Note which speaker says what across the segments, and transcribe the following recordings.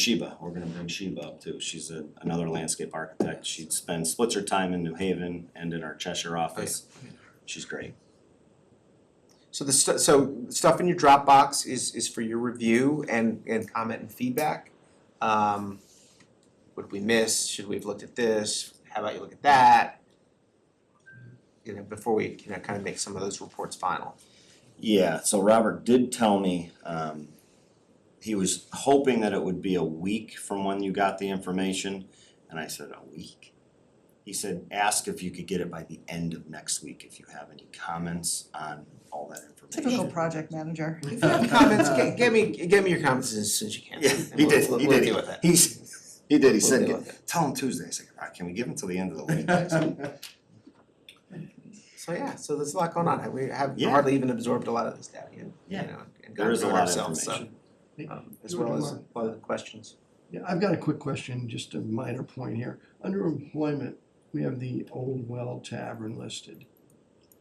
Speaker 1: Sheba, we're gonna bring Sheba up too, she's a, another landscape architect, she spent, splits her time in New Haven and in our Cheshire office. She's great,
Speaker 2: So the stu- so stuff in your Dropbox is is for your review and and comment and feedback. Um, what did we miss? Should we have looked at this? How about you look at that? You know, before we you know kind of make some of those reports final.
Speaker 1: yeah, so Robert did tell me, um, he was hoping that it would be a week from when you got the information, and I said, a week? He said, ask if you could get it by the end of next week, if you have any comments on all that information.
Speaker 3: Typical project manager.
Speaker 2: If you have comments, get, get me get me your comments as soon as you can.
Speaker 1: Yeah,
Speaker 2: and
Speaker 1: he
Speaker 2: we'll-
Speaker 1: did,
Speaker 2: we'll-
Speaker 1: he
Speaker 2: we'll
Speaker 1: did.
Speaker 2: deal with that.
Speaker 1: He's, he did, he
Speaker 2: We'll
Speaker 1: said,
Speaker 2: deal with it.
Speaker 1: tell him Tuesday, I said, "Ah, can we give him till the end of the week? I said,
Speaker 2: So yeah, so there's a lot going on. We have
Speaker 1: Yeah.
Speaker 2: hardly even absorbed a lot of this data yet.
Speaker 1: Yeah.
Speaker 2: You know, and
Speaker 1: There is a
Speaker 2: gotten to
Speaker 1: lot of
Speaker 2: it ourselves, so,
Speaker 1: information.
Speaker 2: um, as
Speaker 4: You would
Speaker 2: well as
Speaker 4: want-
Speaker 2: a lot of the questions.
Speaker 4: Yeah, I've got a quick question, just a minor point here. Under employment, we have the Old Well Tavern listed.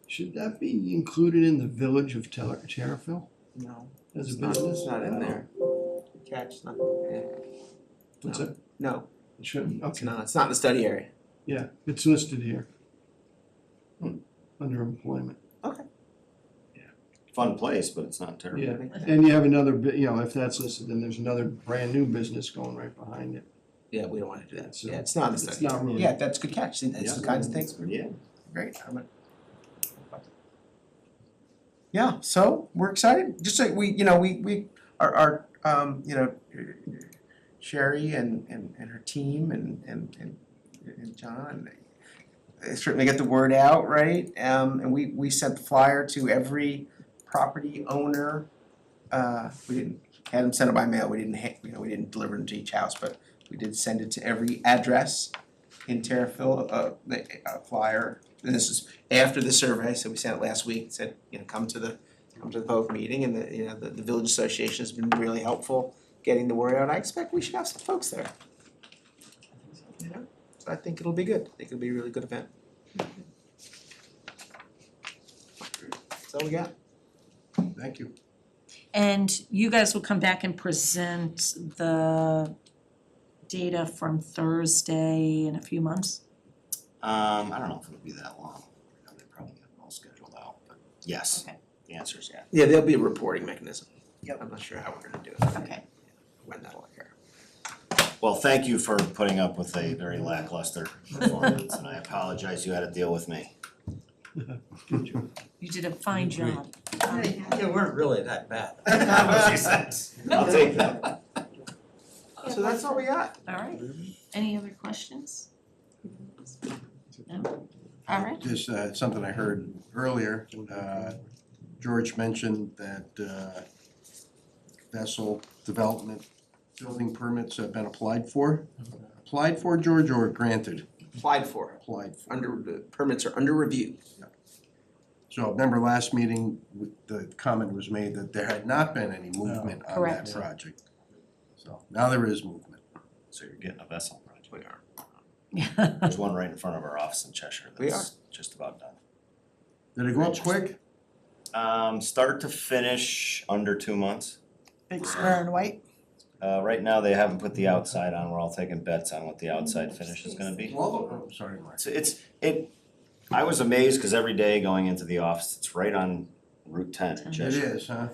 Speaker 4: Should that be included in the village of Ter- Terriffill
Speaker 2: No,
Speaker 4: as a
Speaker 2: it's not, it's
Speaker 4: business?
Speaker 2: not in there. Catch, it's not, yeah.
Speaker 4: What's
Speaker 2: No.
Speaker 4: that?
Speaker 2: No,
Speaker 4: It shouldn't,
Speaker 2: it's
Speaker 4: okay,
Speaker 2: not, it's not in the study area.
Speaker 4: yeah, it's listed here. Hmm, Under employment,
Speaker 1: Fun place, but it's not terrible.
Speaker 4: yeah. And you have another, bu- you know, if that's listed, then there's another brand new business going right behind it.
Speaker 2: Yeah, we don't wanna do that,
Speaker 4: So,
Speaker 2: yeah, it's not in the
Speaker 4: It's
Speaker 2: study.
Speaker 4: not really.
Speaker 2: Yeah, that's a good catch, See, that's the
Speaker 1: Yeah.
Speaker 2: kinds of things,
Speaker 1: Yeah.
Speaker 2: great, I'm gonna- Yeah, so we're excited, just like we, you know, we we our our um, you know, Sherry and and and her team and and and and John they certainly get the word out, right? Um and we we sent the flyer to every property owner. Uh we didn't had them sent it by mail, we didn't ha- you know, we didn't deliver them to each house, but we did send it to every address in Terriffill, uh the a flyer. And this is after the survey, so we sent it last week, said, you know, come to the, come to the public meeting, and the, you know, the, the village association has been really helpful getting the word out, I expect we should have some folks there. You know, so I think it'll be good, I think it'll be a really good event. That's all we got.
Speaker 4: Thank you.
Speaker 5: And you guys will come back and present the data from Thursday in a few months?
Speaker 1: Um, I don't know if it'll be that long. I mean, They probably have it all scheduled out, but yes,
Speaker 5: Okay.
Speaker 1: the answer is yeah.
Speaker 2: Yeah, there'll be a reporting mechanism.
Speaker 5: Yep.
Speaker 2: I'm not sure how we're gonna do it.
Speaker 5: Okay.
Speaker 2: When that'll occur.
Speaker 1: Well, thank you for putting up with a very lackluster performance, and I apologize you had to deal with me.
Speaker 4: Good job.
Speaker 5: You did a fine
Speaker 4: Great.
Speaker 5: job.
Speaker 6: They weren't really that bad.
Speaker 1: I'll take that.
Speaker 2: So that's all we got.
Speaker 5: All right, any other questions? No? All right,
Speaker 7: Just uh, something I heard earlier, uh, George mentioned that uh, vessel development building permits have been applied for. Applied for, George, or granted?
Speaker 2: Applied for, it.
Speaker 7: Applied for.
Speaker 2: under, the permits are under review.
Speaker 7: So remember last meeting, w- the comment was made that there had not been any movement on that
Speaker 5: Correct.
Speaker 7: project. So now there is movement.
Speaker 1: So you're getting a vessel project.
Speaker 2: We are.
Speaker 1: There's one right in front of our office in Cheshire
Speaker 2: We
Speaker 1: that's just about done.
Speaker 7: Did it go up quick?
Speaker 1: Um, start to finish, under two months.
Speaker 3: Big square and white.
Speaker 1: Uh, right now, they haven't put the outside on, we're all taking bets on what the outside finish is gonna be.
Speaker 7: Well, oh, sorry, Mark.
Speaker 1: So it's, it, I was amazed, cause every day going into the office, it's right on Route ten in
Speaker 7: It
Speaker 1: Cheshire.
Speaker 7: is, huh?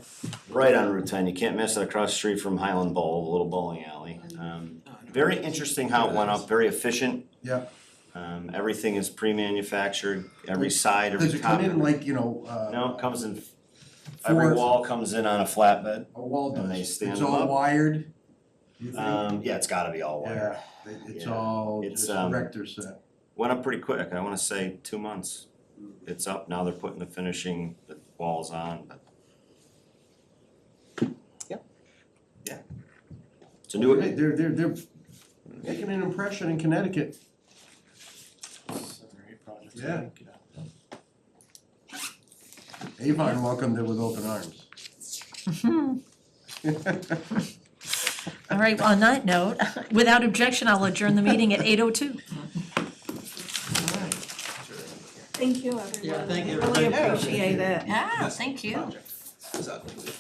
Speaker 1: Right on Route ten, you can't miss it across the street from Highland Bowl, the little bowling alley. Um,
Speaker 5: Oh,
Speaker 1: very interesting how it went up, very efficient.
Speaker 7: Yeah.
Speaker 1: Um, everything is pre-manufactured, every side, every
Speaker 7: Does
Speaker 1: top.
Speaker 7: it come in like, you know, uh?
Speaker 1: No, it comes in, every
Speaker 7: four-
Speaker 1: wall comes in on a flatbed.
Speaker 7: A wall
Speaker 1: And they
Speaker 7: does.
Speaker 1: stand
Speaker 7: It's
Speaker 1: them
Speaker 7: all
Speaker 1: up.
Speaker 7: wired. You think?
Speaker 1: Um, yeah, it's gotta be all wired.
Speaker 7: Yeah, it- it's
Speaker 1: Yeah.
Speaker 7: all
Speaker 1: It's,
Speaker 7: just
Speaker 1: um,
Speaker 7: rector set.
Speaker 1: Went up pretty quick, I wanna say two months. It's up, now they're putting the finishing, the walls on, but.
Speaker 2: Yep.
Speaker 1: Yeah. It's a new,
Speaker 7: They're, they're, they're making an impression in Connecticut. Yeah. Avon welcomed it with open arms.
Speaker 5: Mm-hmm. all right, on that note, without objection, I'll adjourn the meeting at eight oh two.
Speaker 3: Thank you, everyone.
Speaker 6: Yeah, thank you,
Speaker 3: Really
Speaker 6: everybody.
Speaker 3: appreciate it.
Speaker 5: Yeah, Oh, thank you.
Speaker 2: Project. It's ugly.